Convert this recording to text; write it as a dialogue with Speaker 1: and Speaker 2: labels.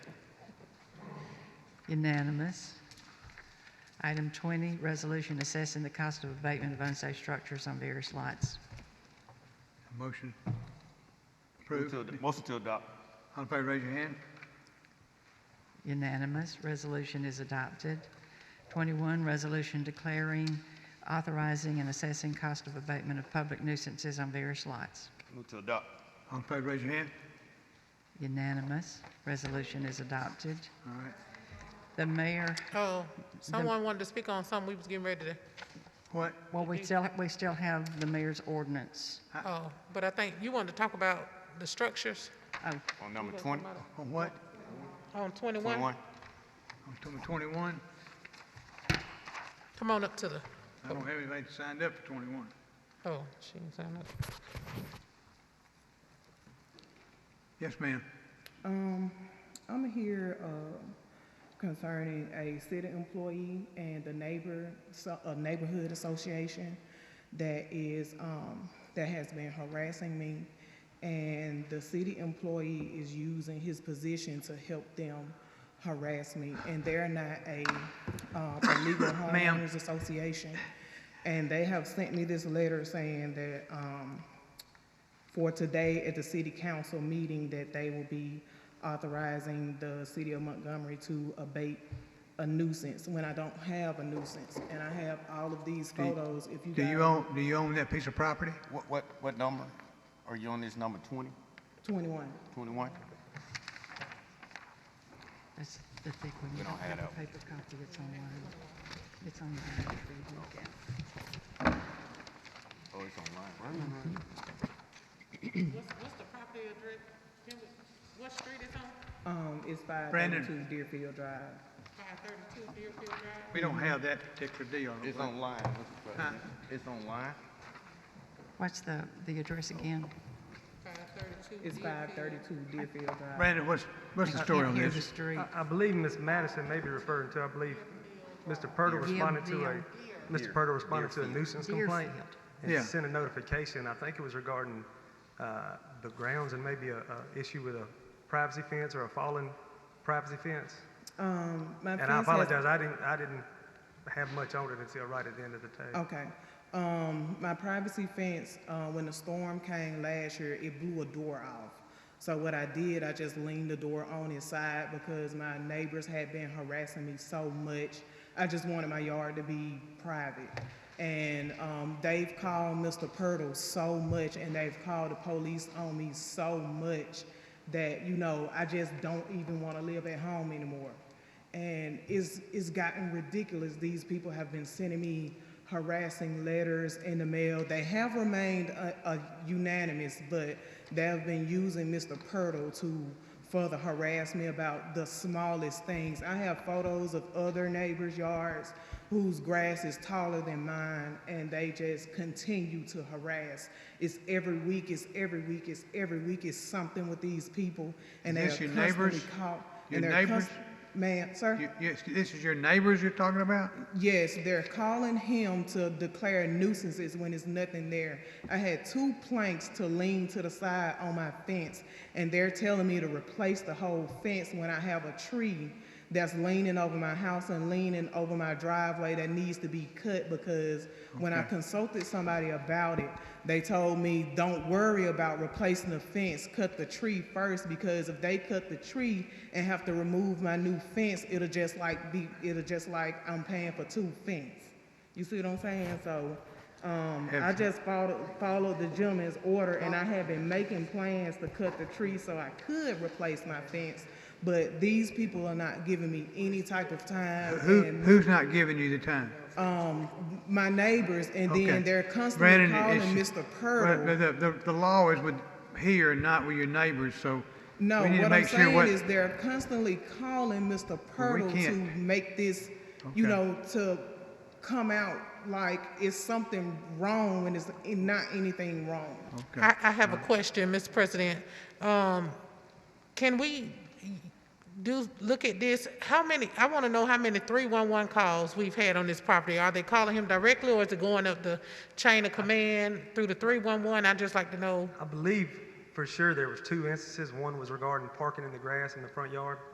Speaker 1: Unanimous. Item 20, resolution assessing the cost of abatement of unsafe structures on various lots.
Speaker 2: Motion
Speaker 3: Move
Speaker 2: approved.
Speaker 3: to ad- Motion to adopt.
Speaker 2: All in favor, raise your hand.
Speaker 1: Unanimous. Resolution is adopted. 21, resolution declaring, authorizing, and assessing cost of abatement of public nuisances on various lots.
Speaker 3: Move to adopt.
Speaker 2: All in favor, raise your hand.
Speaker 1: Unanimous. Resolution is adopted.
Speaker 2: All right.
Speaker 1: The mayor,
Speaker 4: Oh, someone wanted to speak on something we was getting ready to,
Speaker 2: What?
Speaker 1: well, we still, we still have the mayor's ordinance.
Speaker 4: oh, but I think you wanted to talk about the structures
Speaker 1: Oh,
Speaker 3: On number 20,
Speaker 2: On what?
Speaker 4: on 21.
Speaker 3: 21.
Speaker 2: On number twenty-one?
Speaker 4: Come on up to the,
Speaker 2: I don't have anybody signed up for twenty-one.
Speaker 4: oh, she didn't sign up.
Speaker 2: Yes, ma'am.
Speaker 5: Um, I'm here, uh, concerning a city employee and the neighbor, so, a neighborhood association that is, um, that has been harassing me. And the city employee is using his position to help them harass me. And they're not a, uh, a legal
Speaker 2: Ma'am.
Speaker 5: homeowners association. And they have sent me this letter saying that, um, for today at the city council meeting that they will be authorizing the city of Montgomery to abate a nuisance when I don't have a nuisance. And I have all of these photos, if you
Speaker 2: Do you
Speaker 5: guys,
Speaker 2: own, do you own that piece of property?
Speaker 3: What, what, what number? Are you on this number 20,
Speaker 5: twenty-one.
Speaker 3: 21?
Speaker 1: that's the thick one. You don't have a paper copy. It's online. It's online.
Speaker 3: Oh, it's online.
Speaker 4: What's, what's the property address? What street is on?
Speaker 5: Um, it's five
Speaker 2: Brandon.
Speaker 5: thirty-two Deerfield Drive.
Speaker 4: 532 Deerfield Drive?
Speaker 2: We don't have that particular deal. I don't
Speaker 3: It's
Speaker 2: think.
Speaker 3: online, Mr. President. It's online.
Speaker 1: What's the, the address again?
Speaker 4: 532
Speaker 5: It's five thirty-two Deerfield Drive.
Speaker 2: Brandon, what's, what's the story on
Speaker 1: Can't hear the
Speaker 2: this?
Speaker 1: street.
Speaker 6: I, I believe Ms. Madison may be referring to, I believe, Mr. Purtle responded to
Speaker 1: Deer.
Speaker 6: a, Mr. Purtle responded to a nuisance complaint.
Speaker 1: Deerfield.
Speaker 2: Yeah.
Speaker 6: And sent a notification, I think it was regarding, uh, the grounds and maybe a, a issue with a privacy fence or a fallen privacy fence.
Speaker 5: Um, my
Speaker 6: And I
Speaker 5: fence has-
Speaker 6: apologize, I didn't, I didn't have much on it until right at the end of the day.
Speaker 5: Okay. Um, my privacy fence, uh, when the storm came last year, it blew a door off. So what I did, I just leaned the door on its side because my neighbors had been harassing me so much. I just wanted my yard to be private. And, um, they've called Mr. Purtle so much and they've called the police on me so much that, you know, I just don't even want to live at home anymore and it's, it's gotten ridiculous. These people have been sending me harassing letters in the mail. They have remained uh, uh, unanimous, but they have been using Mr. Purtle to further harass me about the smallest things. I have photos of other neighbors' yards whose grass is taller than mine, and they just continue to harass. It's every week, it's every week, it's every week, it's something with these people, and they are
Speaker 2: Is this your
Speaker 5: constantly
Speaker 2: neighbors?
Speaker 5: caught.
Speaker 2: Your
Speaker 5: and they're
Speaker 2: neighbors?
Speaker 5: const- Ma'am, sir?
Speaker 2: You- Yes, this is your neighbors you're talking about?
Speaker 5: Yes, they're calling him to declare nuisances when there's nothing there. I had two planks to lean to the side on my fence, and they're telling me to replace the whole fence when I have a tree that's leaning over my house and leaning over my driveway that needs to be cut because when I
Speaker 2: Okay.
Speaker 5: consulted somebody about it, they told me, don't worry about replacing the fence, cut the tree first, because if they cut the tree and have to remove my new fence, it'll just like be, it'll just like I'm paying for two fence. You see what I'm saying? So, um, I
Speaker 2: Have-
Speaker 5: just followed, followed the gentleman's order, and
Speaker 2: Oh.
Speaker 5: I had been making plans to cut the tree so I could replace my fence, but these people are not giving me any type of time.
Speaker 2: Who,
Speaker 5: and-
Speaker 2: who's not giving you the time?
Speaker 5: um, my neighbors, and
Speaker 2: Okay.
Speaker 5: then they're constantly
Speaker 2: Brandon,
Speaker 5: calling
Speaker 2: it's-
Speaker 5: Mr.
Speaker 2: Well, The,
Speaker 5: Purtle.
Speaker 2: the- the, the law is with here and not with your neighbors, so we
Speaker 5: No,
Speaker 2: need to
Speaker 5: what I'm
Speaker 2: make sure
Speaker 5: saying
Speaker 2: what.
Speaker 5: is they're constantly calling Mr.
Speaker 2: Well, we
Speaker 5: Purtle to
Speaker 2: can't.
Speaker 5: make this, you
Speaker 2: Okay.
Speaker 5: know, to come out like it's something wrong when it's not anything wrong.
Speaker 2: Okay.
Speaker 4: I, I have a question, Mr. President. Um, can we do, look at this? How many, I want to know how many 311 calls we've had on this property. Are they calling him directly or is it going up the chain of command through the 311? I'd just like to know.
Speaker 6: I believe for sure there was two instances, one was regarding parking in the grass in the front yard.